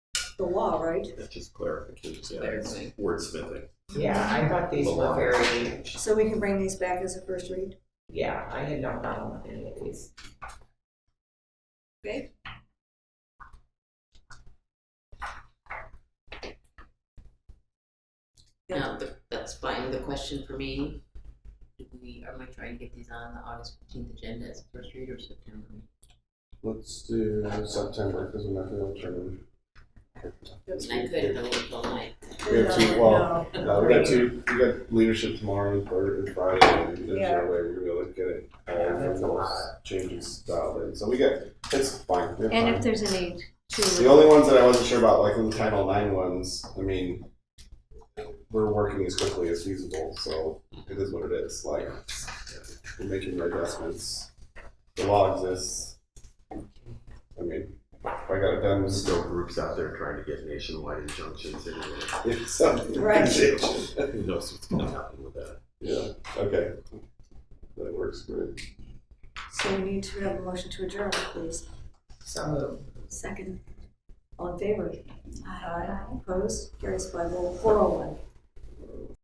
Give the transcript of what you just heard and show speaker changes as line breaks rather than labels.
the law, right?
That's just clarification, yeah, it's
Clarifying.
wordsmithing.
Yeah, I thought these were very,
So we can bring these back as a first read.
yeah, I had no problem with any of these.
Okay.
No, th- that's fine. The question for me, do we, are we trying to get these on the August fifteenth agenda as first read or September?
Let's do September, because we're not gonna turn.
And I could have looked all night.
We have two, well, no, we got two, we got leadership tomorrow and Friday, and Friday, and there's
Yeah.
no way we're gonna look at it.
Yeah, that's a lot.
Changing style, and so we get, it's fine, we're
And if
fine.
there's a need
The
to,
only ones that I wasn't sure about, like the Title IX ones, I mean, we're working as quickly as feasible, so it is what it is, like, we're making the adjustments. The law exists. I mean, if I got it done,
There's still groups out there trying to get nationwide injunctions anyway.
it's something.
Right.
Who knows what's gonna happen with that?
Yeah, okay. That works great.
So we need to have a motion to adjourn, please.
So moved.
Second. All in favor? Aye. Opposed? Carries by roll four oh one.